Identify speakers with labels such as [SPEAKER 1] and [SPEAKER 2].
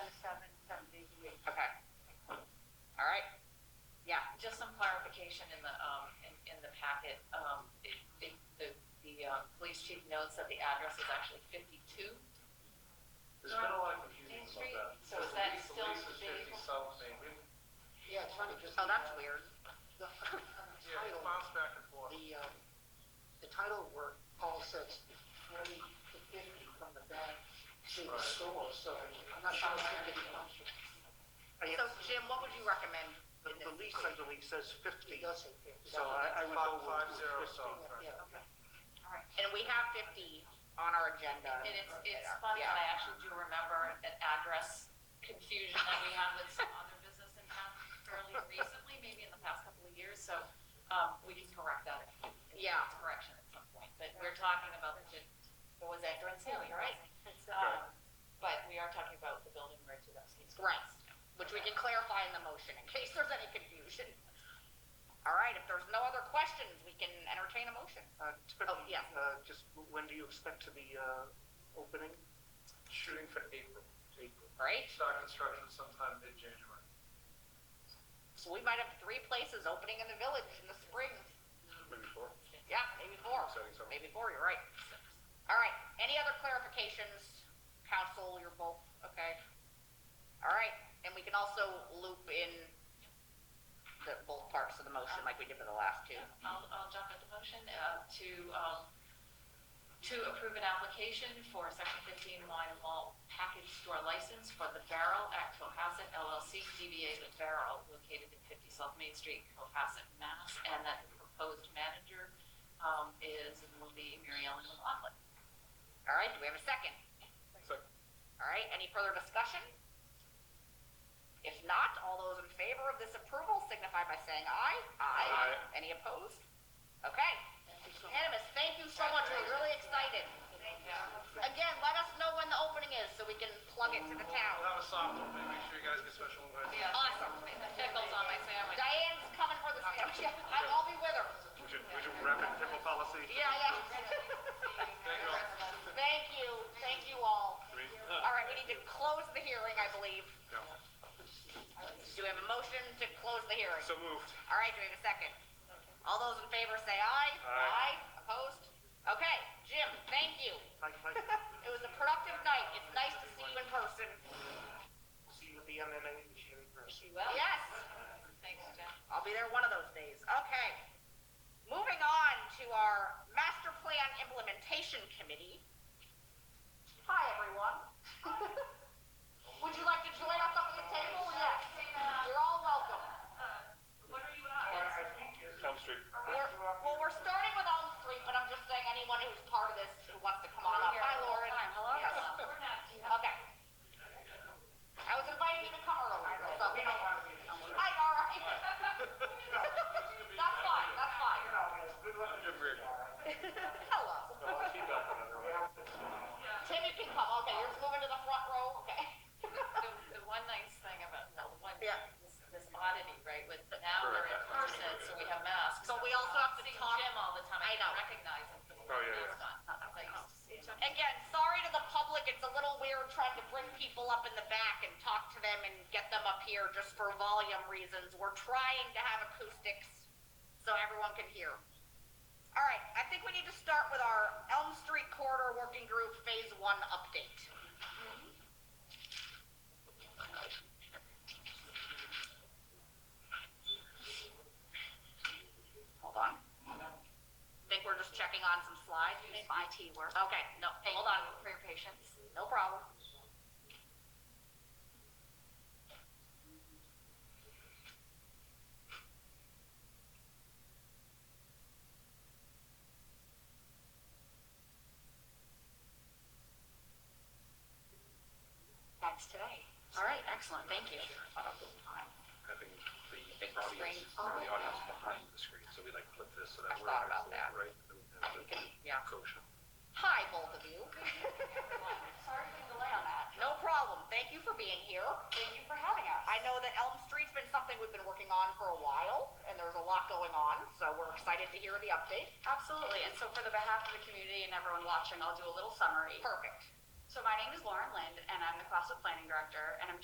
[SPEAKER 1] um, uh, notes that the address is actually fifty-two.
[SPEAKER 2] There's been a lot of
[SPEAKER 1] Main
[SPEAKER 2] confusion
[SPEAKER 1] Street?
[SPEAKER 2] about that.
[SPEAKER 1] So is
[SPEAKER 2] Because
[SPEAKER 1] that
[SPEAKER 2] Lisa-
[SPEAKER 1] still
[SPEAKER 2] Lisa's
[SPEAKER 1] the
[SPEAKER 2] fifty
[SPEAKER 1] vehicle?
[SPEAKER 2] South Main, we,
[SPEAKER 3] Yeah, it's funny, just.
[SPEAKER 4] Oh,
[SPEAKER 3] the,
[SPEAKER 4] that's
[SPEAKER 3] uh,
[SPEAKER 4] weird.
[SPEAKER 3] The
[SPEAKER 2] yeah, it
[SPEAKER 3] title,
[SPEAKER 2] bounced back and forth.
[SPEAKER 3] the, uh, the title work all says forty to fifty from the back to the
[SPEAKER 2] Right.
[SPEAKER 3] store, so I'm not sure it's fifty comes from.
[SPEAKER 5] I-
[SPEAKER 4] So Jim, what would you recommend
[SPEAKER 5] The
[SPEAKER 4] in
[SPEAKER 5] the
[SPEAKER 4] this?
[SPEAKER 5] lease, I believe, says
[SPEAKER 3] It
[SPEAKER 5] fifty,
[SPEAKER 3] does say fifty.
[SPEAKER 5] so I, I would go
[SPEAKER 2] Five, five
[SPEAKER 5] with with
[SPEAKER 2] zero
[SPEAKER 5] fifty.
[SPEAKER 2] South, right.
[SPEAKER 3] Yeah.
[SPEAKER 4] Okay.
[SPEAKER 1] All right.
[SPEAKER 4] And we have fifty on our agenda.
[SPEAKER 1] And it's, it's
[SPEAKER 4] Yeah.
[SPEAKER 1] funny, I actually do remember an address confusion that we had with some other business in town fairly recently, maybe in the past couple of years, so, um, we can correct that. if- if it's
[SPEAKER 4] Yeah.
[SPEAKER 1] Correction at some point, but we're talking about the, what was that, Durant Hill, you're right?
[SPEAKER 4] Right.
[SPEAKER 1] Um, But we are talking about the building where Tudowski's.
[SPEAKER 4] Right, which we can clarify in the motion in case there's any confusion. All right, if there's no other questions, we can entertain a motion.
[SPEAKER 5] Uh, typically,
[SPEAKER 4] Oh, yeah.
[SPEAKER 5] uh, just when do you expect to be, uh, opening?
[SPEAKER 2] Shooting for April, April.
[SPEAKER 4] Great,
[SPEAKER 2] Start construction sometime mid-January.
[SPEAKER 4] so we might have three places opening in the village in the spring.
[SPEAKER 2] Maybe four.
[SPEAKER 4] Yeah, maybe four,
[SPEAKER 2] Exciting summer.
[SPEAKER 4] maybe four, you're right. All right, any other clarifications? Council, you're both, okay? All right, and we can also loop in the, both parts of the motion like we did for the last two.
[SPEAKER 1] I'll, I'll jump into motion, uh, to, um, to approve an application for section fifteen wine and malt package store license for the Barrel at Cohasset LLC, DBA The Barrel, located at fifty South Main Street, Cohasset, Mass. And that the proposed manager, um, is, and will be Mary Ellen McLaughlin.
[SPEAKER 4] All right, do we have a second?
[SPEAKER 2] Second.
[SPEAKER 4] All right, any further discussion? If not, all those in favor of this approval signify by saying aye.
[SPEAKER 2] Aye.
[SPEAKER 4] Any opposed? Okay, unanimous, thank you so much, we're really excited. Again, let us know when the opening is so we can plug it to the
[SPEAKER 2] We'll
[SPEAKER 4] town.
[SPEAKER 2] have a soft opening, make sure you guys get special invites.
[SPEAKER 1] Yeah.
[SPEAKER 4] Awesome.
[SPEAKER 1] Pickles on my sandwich.
[SPEAKER 4] Diane's coming for the, I'll be with her.
[SPEAKER 6] Would you, would you wrap it in a policy?
[SPEAKER 4] Yeah, yeah.
[SPEAKER 2] Thank you all.
[SPEAKER 4] Thank you, thank you all.
[SPEAKER 6] I mean,
[SPEAKER 4] All right, we need to close the hearing, I believe.
[SPEAKER 6] yeah.
[SPEAKER 4] Do we have a motion to close the hearing?
[SPEAKER 6] So moved.
[SPEAKER 4] All right, do we have a second? All those in favor say aye.
[SPEAKER 6] Aye.
[SPEAKER 4] Opposed? Okay, Jim, thank you.
[SPEAKER 5] Like, like,
[SPEAKER 4] It was a productive night. It's nice to see you in person.
[SPEAKER 5] see you at the MMA in person.
[SPEAKER 1] You will?
[SPEAKER 4] Yes,
[SPEAKER 1] Thanks, Jen.
[SPEAKER 4] I'll be there one of those days. Okay. Moving on to our Master Plan Implementation Committee. Hi, everyone. Would you like to join us up at the table? Yes. You're all welcome.
[SPEAKER 5] Uh, I think it's
[SPEAKER 6] Elm Street.
[SPEAKER 4] We're, well, we're starting with Elm Street, but I'm just saying anyone who's part of this who wants to come on up. Hi, Lauren.
[SPEAKER 1] Hello.
[SPEAKER 4] Yes.
[SPEAKER 1] We're not,
[SPEAKER 4] Okay. I was inviting you to come earlier, so.
[SPEAKER 5] We don't want to be, you
[SPEAKER 4] Hi, all right. That's fine, that's fine.
[SPEAKER 5] know, it's good luck.
[SPEAKER 6] Good read.
[SPEAKER 4] Hello. Tim, you can come, okay, you're just moving to the front row, okay?
[SPEAKER 1] the, the one nice thing about, no, the one,
[SPEAKER 4] Yeah.
[SPEAKER 1] this, this oddity, right, with now we're in person, so we have masks.
[SPEAKER 4] But we also have to
[SPEAKER 1] See
[SPEAKER 4] talk-
[SPEAKER 1] Jim all the time,
[SPEAKER 4] I
[SPEAKER 1] I
[SPEAKER 4] know. Uh,
[SPEAKER 1] don't recognize him.
[SPEAKER 6] Oh, yeah, yeah.
[SPEAKER 4] Again, sorry to the public, it's a little weird trying to bring people up in the back and talk to them and get them up here just for volume reasons. We're trying to have acoustics so everyone can hear. All right, I think we need to start with our Elm Street Corridor Working Group Phase One update. Hold on. Think we're just checking on some slides?
[SPEAKER 1] IT work.
[SPEAKER 4] Okay, no, hold on,
[SPEAKER 1] for your patience.
[SPEAKER 4] no problem.
[SPEAKER 1] That's today.
[SPEAKER 4] All right, excellent, thank you.
[SPEAKER 7] having the audience, the audience behind the screen, so we like flip this so
[SPEAKER 4] I
[SPEAKER 7] that we're.
[SPEAKER 4] thought about that.
[SPEAKER 7] Right? So we have the
[SPEAKER 4] Yeah.
[SPEAKER 7] Kosher.
[SPEAKER 4] Hi, both of you.
[SPEAKER 1] Sorry for the delay on that.
[SPEAKER 4] No problem, thank you for being here.
[SPEAKER 1] Thank you for having us.
[SPEAKER 4] I know that Elm Street's been something we've been working on for a while, and there's a lot going on, so we're excited to hear the update.
[SPEAKER 8] Absolutely. And so for the behalf of the community and everyone watching, I'll do a little summary.
[SPEAKER 4] Perfect.
[SPEAKER 8] So my name is Lauren Lind, and I'm the CrossFit Planning Director, and I'm